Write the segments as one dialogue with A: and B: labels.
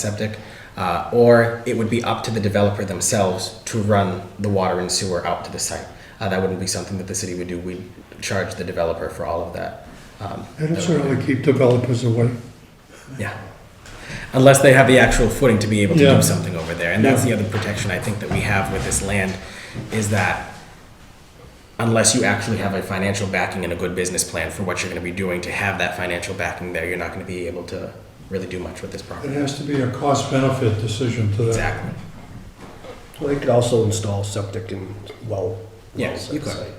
A: septic, uh, or it would be up to the developer themselves to run the water and sewer out to the site. Uh, That wouldn't be something that the city would do. We'd charge the developer for all of that. Um,
B: That'll certainly keep developers away.
A: Yeah. Unless they have the actual footing to be able to
B: Yeah.
A: do something over there. And that's the other protection I think that we have with this land is that unless you actually have a financial backing and a good business plan for what you're going to be doing, to have that financial backing there, you're not going to be able to really do much with this
B: It
A: property.
B: has to be a cost-benefit decision to that.
A: Exactly.
C: Well, They could also install septic and well.
A: Yeah,
C: wells
A: you
C: at the
A: could.
C: site.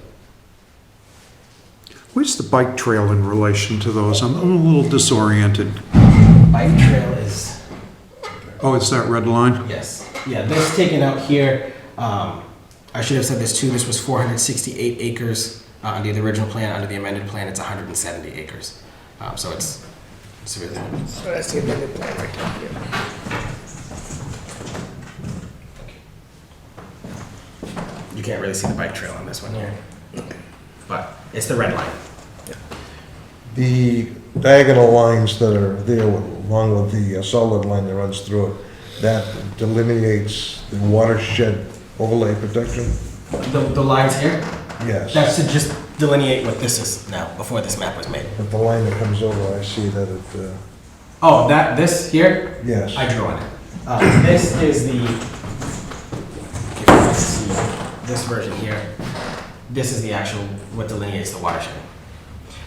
D: Where's the bike trail in relation to those? I'm I'm a little disoriented.
A: Bike trail is
D: Oh, it's that red line?
A: Yes. Yeah, this taken out here, um, I should have said this too, this was four hundred sixty-eight acres, uh, under the original plan, under the amended plan, it's hundred and seventy acres. Um, so it's, it's really. That's the amended plan right down here. You can't really see the bike trail on this one here, but it's the red line.
E: The diagonal lines that are there with- along with the uh, solid line that runs through it, that delineates the watershed overlay protection?
A: The, the lines here, that's
E: Yes.
A: to just delineate what this is now, before this map was made.
E: But the line that comes over, I see that it, uh,
A: Oh, that, this here,
E: yes.
A: I drew on it. Uh, this is the, if you can see this version here, this is the actual, what delineates the watershed.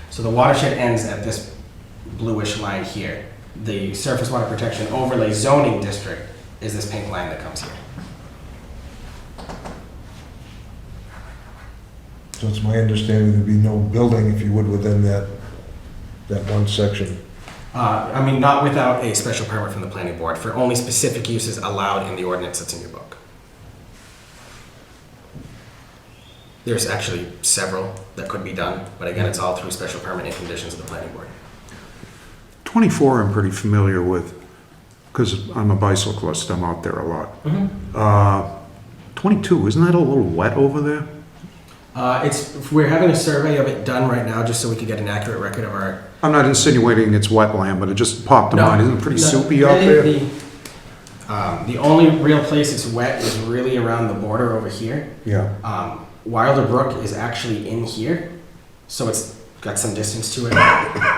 A: So the watershed ends at this bluish line here. The surface water protection overlay zoning district is this pink line that comes here.
E: So it's my understanding there'd be no building, if you would, within that, that one section.
A: Uh, I mean, not without a special permit from the planning board for only specific uses allowed in the ordinance that's in your book. There's actually several that could be done, but again, it's all through special permit and conditions of the planning board.
D: 24 I'm pretty familiar with, because I'm a bicyclist, I'm out there a lot.
A: Mm-hmm.
D: Uh, 22, isn't that a little wet over there?
A: Uh, it's, we're having a survey of it done right now, just so we can get an accurate record of our.
D: I'm not insinuating it's wetland, but it just popped in mind, isn't it pretty
A: No,
D: soupy out
A: really,
D: there?
A: the- Um, the only real place it's wet is really around the border over here.
E: Yeah.
A: Um, Wilder Brook is actually in here, so it's got some distance to it.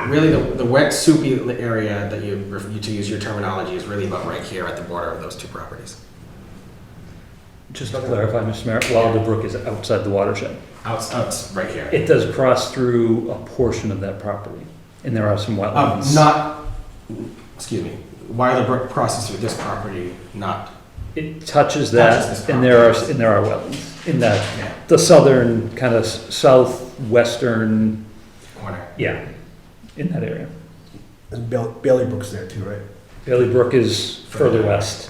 A: Really, the, the wet soupy li- area that you, ref- you to use your terminology is really about right here at the border of those two properties,
F: Just to clarify, Mr. Mayor, Wilder Brook is outside the watershed.
A: out, out right here.
F: It does cross through a portion of that property, and there are some
A: Um,
F: wetlands.
A: not, excuse me, Wilder Brook crosses through this property, not
F: It touches
A: Touches this
F: that, and there are,
A: property.
F: and there are wetlands in
A: Yeah.
F: that, the southern, kind of southwestern,
A: corner.
F: yeah, in that area.
C: And Bail- Bailey Brook's there too, right?
F: Bailey Brook is further west.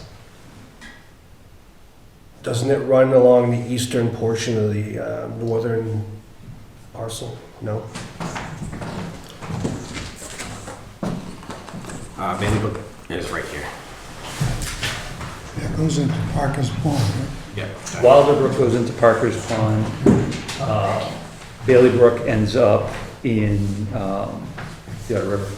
C: Doesn't it run along the eastern portion of the uh, northern parcel? No?
A: Uh, Bailey Brook is right here.
B: That goes into Parker's Pond, right?
A: Yep.
F: Wilder Brook goes into Parker's Pond. Uh, Bailey Brook ends up in um, the other river.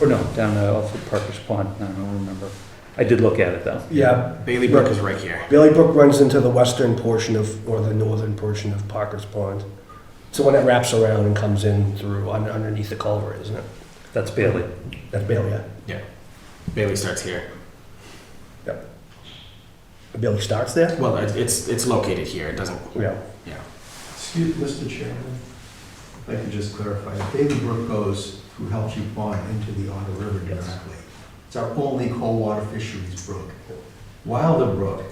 F: Or no, down uh, off of Parker's Pond. I don't remember. I did look at it though.
C: Yeah,
A: Bailey Brook is right here.
C: Bailey Brook runs into the western portion of, or the northern portion of Parker's Pond. It's the one that wraps around and comes in through, un- underneath the culvert, isn't it?
F: That's Bailey.
C: That's Bailey, yeah.
A: Yeah. Bailey starts here.
C: Yep. Bailey starts there?
A: Well, it- it's, it's located here, it doesn't,
C: Yeah.
A: yeah.
G: Excuse, Mr. Chairman, if I could just clarify, Bailey Brook goes through Helchy Pond into the Otter River
C: Yes.
G: directly. It's our only cold water fisheries brook. Wilder Brook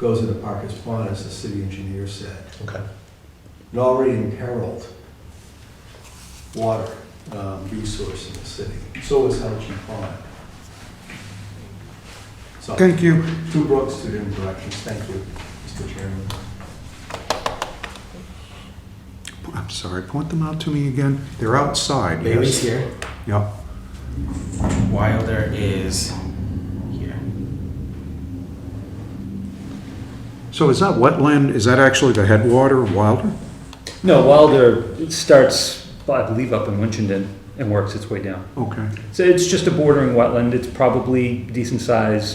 G: goes into Parker's Pond, as the city engineer said,
C: Okay.
G: and already imperiled water um, resource in the city. So is Helchy Pond. So,
D: Thank you.
G: two brooks, two different directions. Thank you, Mr. Chairman.
D: I'm sorry, point them out to me again. They're outside,
A: Bailey's
D: yes.
A: here.
D: Yep.
A: Wilder is here.
D: So is that wetland, is that actually the headwater of Wilder?
F: No, Wilder starts, I believe, up in Winchendon and and works its way down.
D: Okay.
F: So it's just a bordering wetland, it's probably decent size,